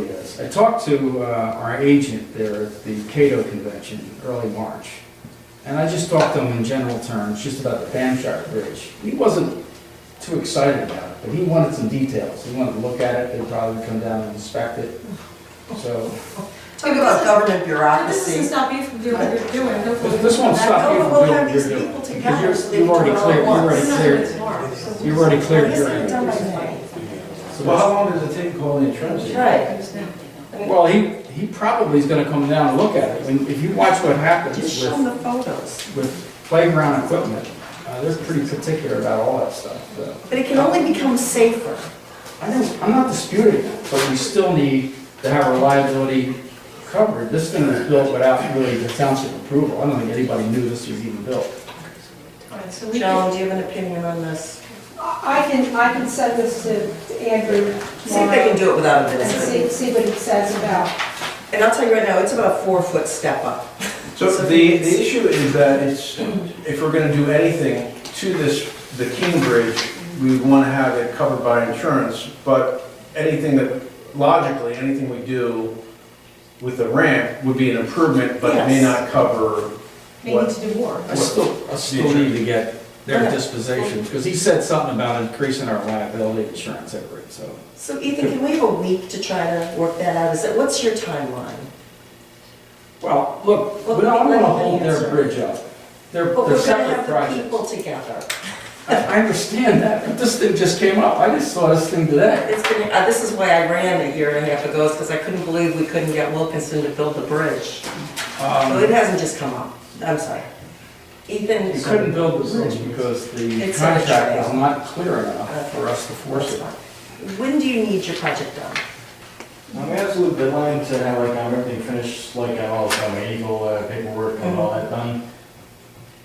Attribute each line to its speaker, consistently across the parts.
Speaker 1: is. I talked to uh, our agent there at the Cato Convention, early March, and I just talked to him in general terms, just about the Bamshire Bridge. He wasn't too excited about it, but he wanted some details. He wanted to look at it, they'd probably come down and inspect it. So,
Speaker 2: Talk about government
Speaker 3: This doesn't
Speaker 2: bureaucracy.
Speaker 3: stop you from doing what you're doing. Hopefully
Speaker 1: This won't
Speaker 3: that-
Speaker 1: stop you.
Speaker 2: No, but we'll have
Speaker 1: You're
Speaker 2: these
Speaker 1: doing-
Speaker 2: people
Speaker 1: because
Speaker 2: together.
Speaker 1: you're-
Speaker 2: so they
Speaker 1: you've
Speaker 2: can
Speaker 1: already
Speaker 2: do it all
Speaker 1: cleared-
Speaker 2: at
Speaker 1: you've already
Speaker 2: once.
Speaker 3: It's not
Speaker 1: cleared-
Speaker 3: even tomorrow, so
Speaker 1: you've already cleared your
Speaker 2: Isn't it done by Friday?
Speaker 1: so
Speaker 4: Well,
Speaker 1: that's-
Speaker 4: how long does it take calling a trench?
Speaker 2: Right.
Speaker 1: well, he, he probably is gonna come down and look at it. And if you watch what happens
Speaker 2: Just show
Speaker 1: with
Speaker 2: them the photos.
Speaker 1: with playground equipment, uh, they're pretty particular about all that stuff. so.
Speaker 2: But it can only become safer.
Speaker 1: I know, I'm not disputing it, but we still need to have our liability covered. This thing was built without really the township approval. I don't think anybody knew this was even built.
Speaker 3: All right, so we can,
Speaker 2: Joan, do you have an opinion on this?
Speaker 5: I I can, I can send this to to
Speaker 2: See
Speaker 5: Andrew
Speaker 2: if they can
Speaker 5: tomorrow
Speaker 2: do it without a
Speaker 5: and see,
Speaker 2: visit.
Speaker 5: see what it says about.
Speaker 2: And I'll tell you right now, it's about a four-foot step up.
Speaker 4: So
Speaker 2: So
Speaker 4: the,
Speaker 2: it's-
Speaker 4: the issue is that it's, if we're gonna do anything to this, the King Bridge, we wanna have it covered by insurance, but anything that, logically, anything we do with the ramp would be an improvement, but it may
Speaker 2: Yes.
Speaker 4: not cover
Speaker 3: may need
Speaker 4: what,
Speaker 3: to do more.
Speaker 1: I still, I still need to get their disposition, because he said something about increasing our liability insurance every, so.
Speaker 2: So Ethan, can we have a week to try to work that out? Is that, what's your timeline?
Speaker 1: Well, look, we don't want to hold their bridge up. They're,
Speaker 2: But
Speaker 1: they're
Speaker 2: we're gonna
Speaker 1: separate
Speaker 2: have the
Speaker 1: projects.
Speaker 2: people together.
Speaker 1: I I understand that, but this thing just came up. I just saw this thing today.
Speaker 2: It's been, uh, this is why I ran a year and a half ago, because I couldn't believe we couldn't get Wilkinson to build the bridge. So
Speaker 1: Um,
Speaker 2: Oh, it hasn't just come up. I'm sorry. Ethan.
Speaker 1: You couldn't build the bridge because the
Speaker 2: It's not a
Speaker 1: contract was
Speaker 2: trail.
Speaker 1: not clear enough for us to force it.
Speaker 2: When do you need your project done?
Speaker 6: My absolute deadline to have like um, everything finished, like um, all the um, legal uh, paperwork and all that done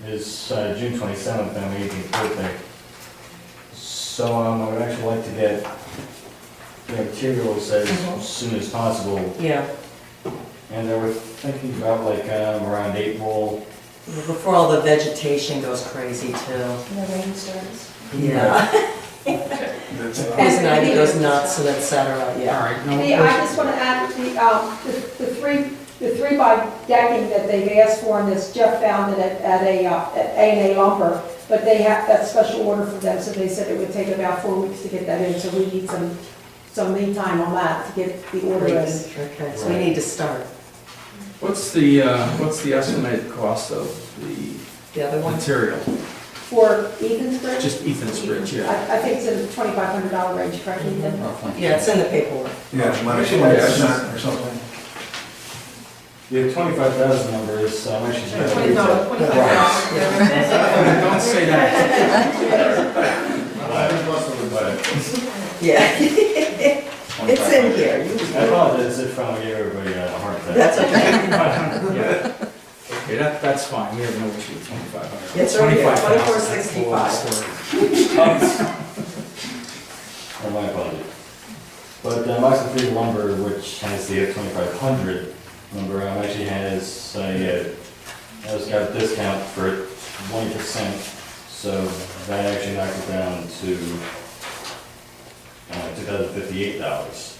Speaker 6: is uh, June twenty-seventh, and my eighteenth birthday. So um, I would actually like to get the materials
Speaker 2: Mhm.
Speaker 6: as soon as possible,
Speaker 2: Yeah,
Speaker 6: and I was thinking about like um, around April.
Speaker 2: before all the vegetation goes crazy too.
Speaker 3: The rain starts.
Speaker 2: Yeah.
Speaker 4: that's
Speaker 2: Poison ivy goes nuts and et cetera,
Speaker 1: All
Speaker 2: yeah.
Speaker 1: right, no,
Speaker 5: The, I just want to add the, um, the the three, the three by decking that they've asked for, and this Jeff found it at, at a, uh, at A and A lumber, but they have that special order from them, so they said it would take about four weeks to get that in, so we need some, some lead time on that to get the order in.
Speaker 2: Okay, so we need to start.
Speaker 1: what's the, uh, what's the estimated cost of the
Speaker 2: The other one?
Speaker 1: material?
Speaker 5: For Ethan's bridge,
Speaker 1: Just Ethan's bridge, yeah.
Speaker 5: I, I think it's in the twenty-five hundred dollar range, correct, Ethan?
Speaker 2: Yeah, it's in the paperwork.
Speaker 4: Yeah, my,
Speaker 6: Actually,
Speaker 4: that's
Speaker 6: it's-
Speaker 4: not, or something.
Speaker 6: The twenty-five thousand number is um, actually.
Speaker 3: Twenty dollars, twenty-five dollars.
Speaker 1: Don't say that.
Speaker 2: Yeah. It's in here. You-
Speaker 6: I apologize if I gave everybody a hard time.
Speaker 2: That's okay.
Speaker 1: Yeah. Okay, that, that's fine, we have no issue with twenty-five hundred.
Speaker 2: It's right here, 2465.
Speaker 6: or my budget. But um, Oxen Free Lumber, which has the F twenty-five hundred number, um, actually has, uh, yeah, I just got a discount for one percent, so that actually knocked it down to, uh, two thousand fifty-eight dollars.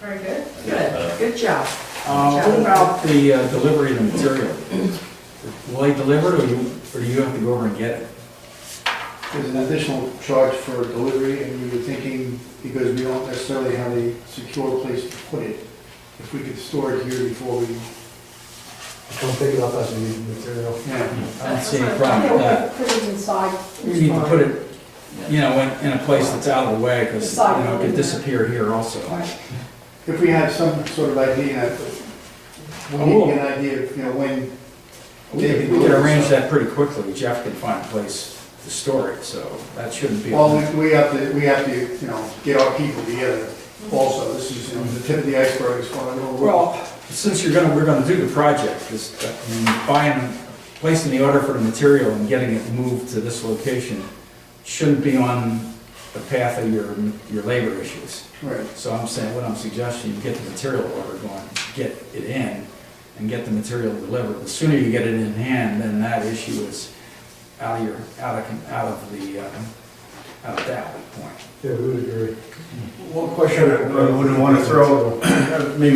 Speaker 3: Very good.
Speaker 2: Good, good job.
Speaker 1: Uh, what about the uh, delivery of the material? Will they deliver it or you, or do you have to go over and get it?
Speaker 7: There's an additional charge for delivery, and we were thinking, because we don't necessarily have a secure place to put it, if we could store it here before we,
Speaker 8: Don't pick it up as a material.
Speaker 7: yeah.
Speaker 1: I don't see any
Speaker 5: Yeah,
Speaker 1: problem
Speaker 5: we're
Speaker 1: with that.
Speaker 5: gonna put it inside.
Speaker 1: You need to put it, you know, in, in a place that's out of the way, because, you know, it could disappear here also.
Speaker 7: If we had some sort of idea, we need
Speaker 8: Oh.
Speaker 7: to get an idea of, you know, when
Speaker 1: We could we could arrange that pretty quickly, Jeff can find a place to store it, so that shouldn't be. a-
Speaker 7: Well, we- we have to, we have to, you know, get our people together also, this is, you know, the tip of the iceberg as far as we're.
Speaker 1: Well, since you're gonna, we're gonna do the project, this, uh, I mean, buying, placing the order for the material and getting it moved to this location shouldn't be on the path of your, your labor issues.
Speaker 7: Right,
Speaker 1: So I'm saying, what I'm suggesting, you get the material order going, get it in, and get the material delivered. The sooner you get it in hand, then that issue is out of your, out of, out of the, um, at that point.
Speaker 8: Yeah, we would agree.
Speaker 4: One question I I wouldn't want to throw, maybe